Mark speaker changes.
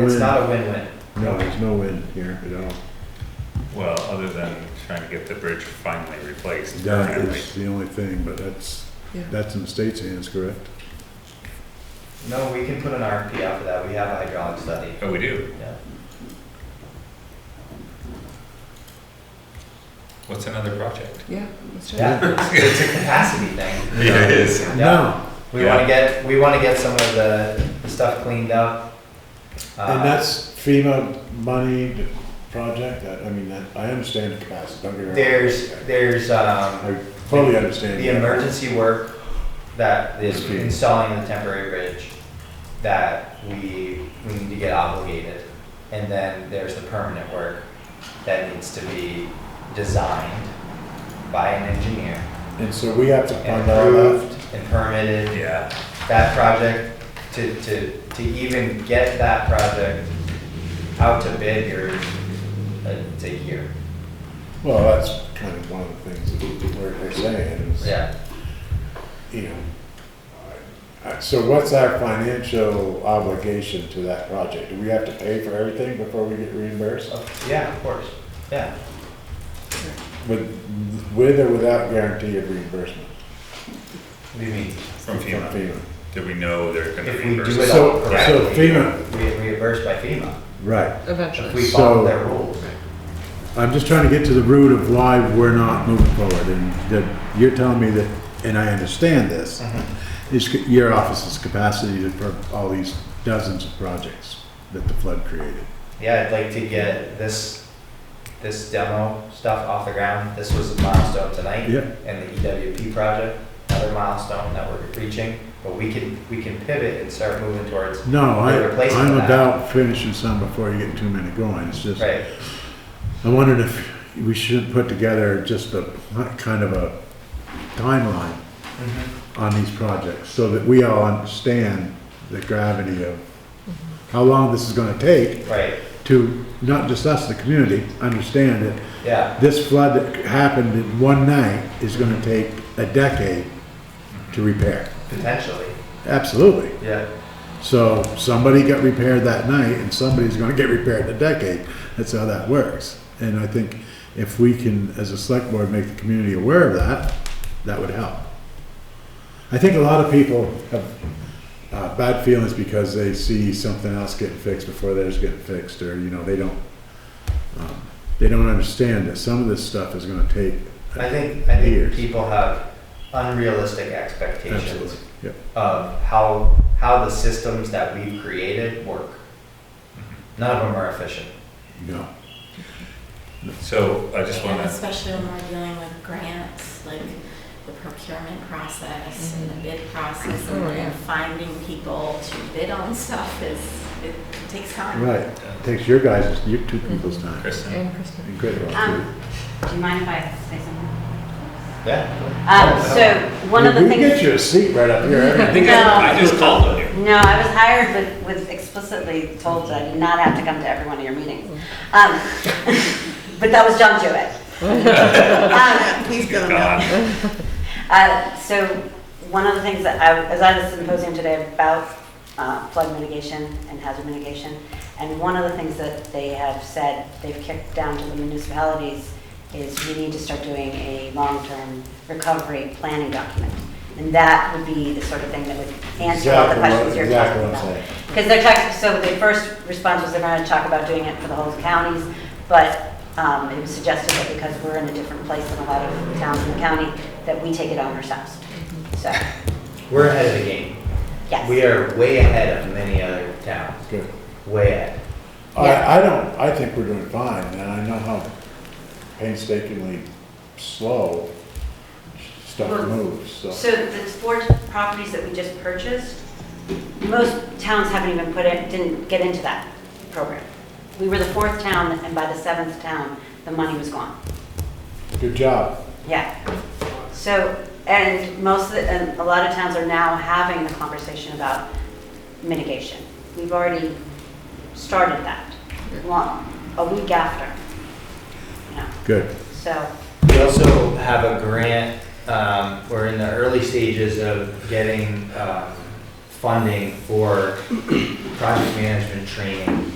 Speaker 1: It's
Speaker 2: win.
Speaker 1: not a win-win.
Speaker 2: No, there's no win here at all.
Speaker 3: Well, other than trying to get the bridge finally replaced.
Speaker 2: That
Speaker 3: apparently.
Speaker 2: is the only thing, but that's,
Speaker 4: Yeah.
Speaker 2: that's in the state's hands, correct?
Speaker 1: No, we can put an RFP out for that, we have a hydraulic study.
Speaker 3: Oh, we do.
Speaker 1: Yeah.
Speaker 3: What's another project?
Speaker 4: Yeah, let's try that.
Speaker 1: Yeah, it's- it's a capacity thing.
Speaker 3: Yeah, it is.
Speaker 1: Yeah. We wanna get, we wanna get some of the the stuff cleaned up. Uh,
Speaker 2: And that's FEMA money the project, that, I mean, that, I understand the capacity, don't get me wrong.
Speaker 1: There's, there's, um,
Speaker 2: I fully understand.
Speaker 1: the
Speaker 2: that.
Speaker 1: emergency work that is
Speaker 2: Okay.
Speaker 1: installing the temporary bridge that we, we need to get obligated. And then there's the permanent work that needs to be designed by an engineer.
Speaker 2: And so we have to
Speaker 1: and
Speaker 2: fund all that.
Speaker 1: approved and permitted.
Speaker 3: Yeah,
Speaker 1: That project, to, to, to even get that project out to bid, you're, uh, it's a year.
Speaker 2: Well, that's kind of one of the things that we're, they're saying is,
Speaker 1: Yeah,
Speaker 2: you know. I- I- So what's our financial obligation to that project? Do we have to pay for everything before we get reimbursed?
Speaker 1: so, yeah, of course, yeah.
Speaker 2: With, with or without guarantee of reimbursement
Speaker 1: What do you mean?
Speaker 3: from
Speaker 2: from
Speaker 3: FEMA.
Speaker 2: FEMA?
Speaker 3: Do we know they're gonna
Speaker 1: If we do
Speaker 3: reimburse?
Speaker 1: it
Speaker 3: us?
Speaker 2: So-
Speaker 1: all
Speaker 2: so
Speaker 1: correctly,
Speaker 2: FEMA-
Speaker 1: we get reimbursed by FEMA,
Speaker 2: Right.
Speaker 1: if
Speaker 4: Eventually.
Speaker 1: we follow
Speaker 2: So-
Speaker 1: their rules.
Speaker 2: I'm just trying to get to the root of why we're not moving forward, and that you're telling me that, and I understand this,
Speaker 1: Mm-hmm.
Speaker 2: is c- your office's capacity to, for all these dozens of projects that the flood created.
Speaker 1: Yeah, I'd like to get this, this demo stuff off the ground, this was a milestone tonight.
Speaker 2: Yeah,
Speaker 1: and the EWP project, another milestone that we're reaching, but we can, we can pivot and start moving towards,
Speaker 2: no, I,
Speaker 1: They're replacing
Speaker 2: I'm
Speaker 1: that.
Speaker 2: about finishing some before you get too many going, it's just,
Speaker 1: right?
Speaker 2: I wondered if we should put together just a pl- kind of a timeline on these projects, so that we all understand the gravity of how long this is gonna take,
Speaker 1: Right,
Speaker 2: to not just us, the community, understand that
Speaker 1: yeah,
Speaker 2: this flood that happened in one night is gonna take a decade to repair.
Speaker 1: potentially,
Speaker 2: Absolutely.
Speaker 1: yeah,
Speaker 2: So somebody got repaired that night and somebody's gonna get repaired in a decade. That's how that works. And I think if we can, as a select board, make the community aware of that, that would help. I think a lot of people have uh, bad feelings because they see something else getting fixed before theirs getting fixed, or, you know, they don't, um, they don't understand that some of this stuff is gonna take.
Speaker 1: I think, I think
Speaker 2: Years.
Speaker 1: people have unrealistic
Speaker 2: Absolutely,
Speaker 1: expectations
Speaker 2: yep.
Speaker 1: of how, how the systems that we've created work. None of them are efficient.
Speaker 2: No.
Speaker 3: So I just
Speaker 5: And
Speaker 3: wanna,
Speaker 5: especially when we're dealing with grants, like the procurement process and the bid process and
Speaker 4: Mm-hmm. Oh,
Speaker 5: then
Speaker 4: yeah.
Speaker 5: finding people to bid on stuff is, it takes time.
Speaker 2: Right, takes your guys', your two people's time.
Speaker 3: Kristen,
Speaker 4: And Kristen.
Speaker 2: Incredible.
Speaker 6: Um, do you mind if I say something?
Speaker 1: Yeah.
Speaker 6: Um, so, one of the
Speaker 2: Oh, We get
Speaker 6: things,
Speaker 2: you a seat right up
Speaker 3: I
Speaker 2: here.
Speaker 3: think I I
Speaker 6: No.
Speaker 3: just called on you.
Speaker 6: no, I was hired with, was explicitly told that I did not have to come to every one of your meetings. Um, but that was John Jewett. Um,
Speaker 3: He's gonna know.
Speaker 6: Uh, So one of the things that I, as I was symposium today about uh, flood mitigation and hazard mitigation, and one of the things that they have said, they've kicked down to the municipalities, is we need to start doing a long-term recovery planning document. And that would be the sort of thing that would answer all
Speaker 2: Exactly
Speaker 6: the
Speaker 2: what-
Speaker 6: questions you're
Speaker 2: exactly
Speaker 6: talking
Speaker 2: what I'm
Speaker 6: about.
Speaker 2: saying.
Speaker 6: Because they're talking, so the first response was they're going to talk about doing it for the whole counties, but um, it was suggested that because we're in a different place than a lot of towns in the county, that we take it on ourselves. So,
Speaker 1: We're ahead of the game. We
Speaker 6: yes.
Speaker 1: are way ahead of many other towns,
Speaker 2: Good.
Speaker 1: way ahead.
Speaker 2: I, I don't, I think we're doing fine, and I know how painstakingly slow stuff
Speaker 6: Well,
Speaker 2: moves, so.
Speaker 6: So the four properties that we just purchased, most towns haven't even put it, didn't get into that program. We were the fourth town, and by the seventh town, the money was gone.
Speaker 2: Good job.
Speaker 6: Yeah. So, and most of the, and a lot of towns are now having the conversation about mitigation. We've already started that, long, a week after. You know,
Speaker 2: Good.
Speaker 6: so,
Speaker 1: We also have a grant, um, we're in the early stages of getting, um, funding for project management training